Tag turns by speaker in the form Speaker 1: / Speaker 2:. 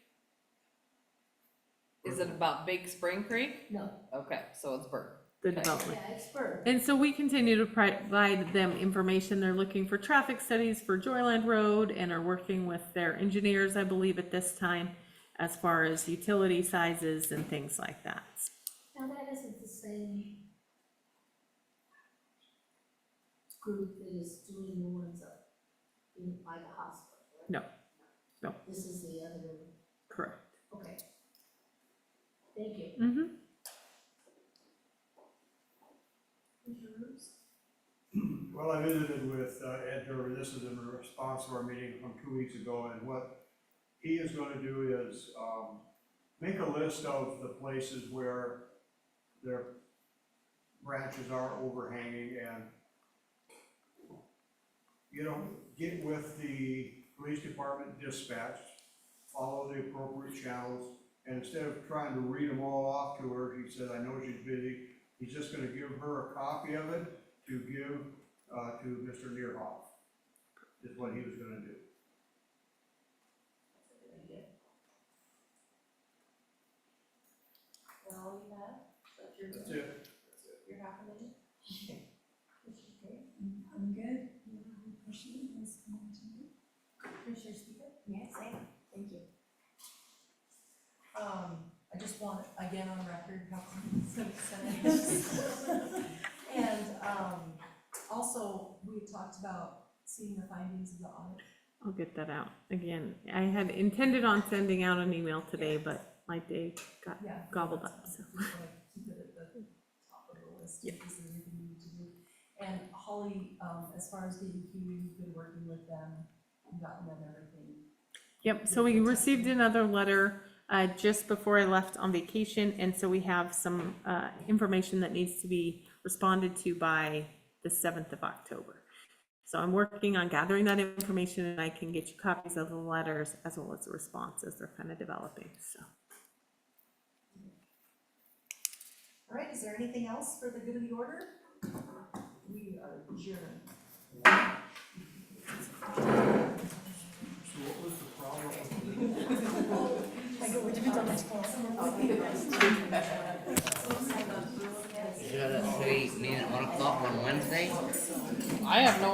Speaker 1: Is it about Big Spring Creek?
Speaker 2: No,
Speaker 1: Okay, so it's Burke.
Speaker 3: the
Speaker 1: Okay.
Speaker 3: development.
Speaker 2: yeah, it's Burke.
Speaker 3: And so we continue to provide them information. They're looking for traffic studies for Joyland Road and are working with their engineers, I believe, at this time, as far as utility sizes and things like that.
Speaker 2: Now, that isn't the same group that is doing the ones up in, by the hospital, right?
Speaker 3: No, no.
Speaker 2: This is the other one,
Speaker 3: Correct.
Speaker 2: okay. Thank you.
Speaker 3: Mm-hmm.
Speaker 4: Well, I visited with uh, Ed Gerber, this is in response to our meeting from two weeks ago, and what he is gonna do is, um, make a list of the places where their branches are overhanging and, you know, get with the police department dispatch, follow the appropriate channels, and instead of trying to read them all off to her, he said, I know she's busy, he's just gonna give her a copy of it to give uh, to Mr. Neerhoff, is what he was gonna do.
Speaker 2: Well, you have, but you're,
Speaker 4: That's it.
Speaker 2: you're half a minute.
Speaker 5: Mm-hmm. I'm good. Question is going to be.
Speaker 6: Commissioner Speaker?
Speaker 5: Yes.
Speaker 6: Thank you. Um, I just want, again, on record, how sensitive And, um, also, we had talked about seeing the findings of the audit.
Speaker 3: I'll get that out. Again, I had intended on sending out an email today, but my day got
Speaker 6: Yeah.
Speaker 3: gobbled up, so.
Speaker 6: We wanna Keep it at the top of the list, because there's anything we need to do. And Holly, um, as far as DEQ, you've been working with them, you've gotten them everything.
Speaker 3: Yep, so we received another letter uh, just before I left on vacation, and so we have some uh, information that needs to be responded to by the 7th of October. So I'm working on gathering that information, and I can get you copies of the letters as well as the responses. They're kind of developing, so.
Speaker 6: All right, is there anything else for the good of the order? We are adjourned.
Speaker 4: So what was the problem with the
Speaker 7: Is that a meeting at one o'clock on Wednesday?
Speaker 1: I have no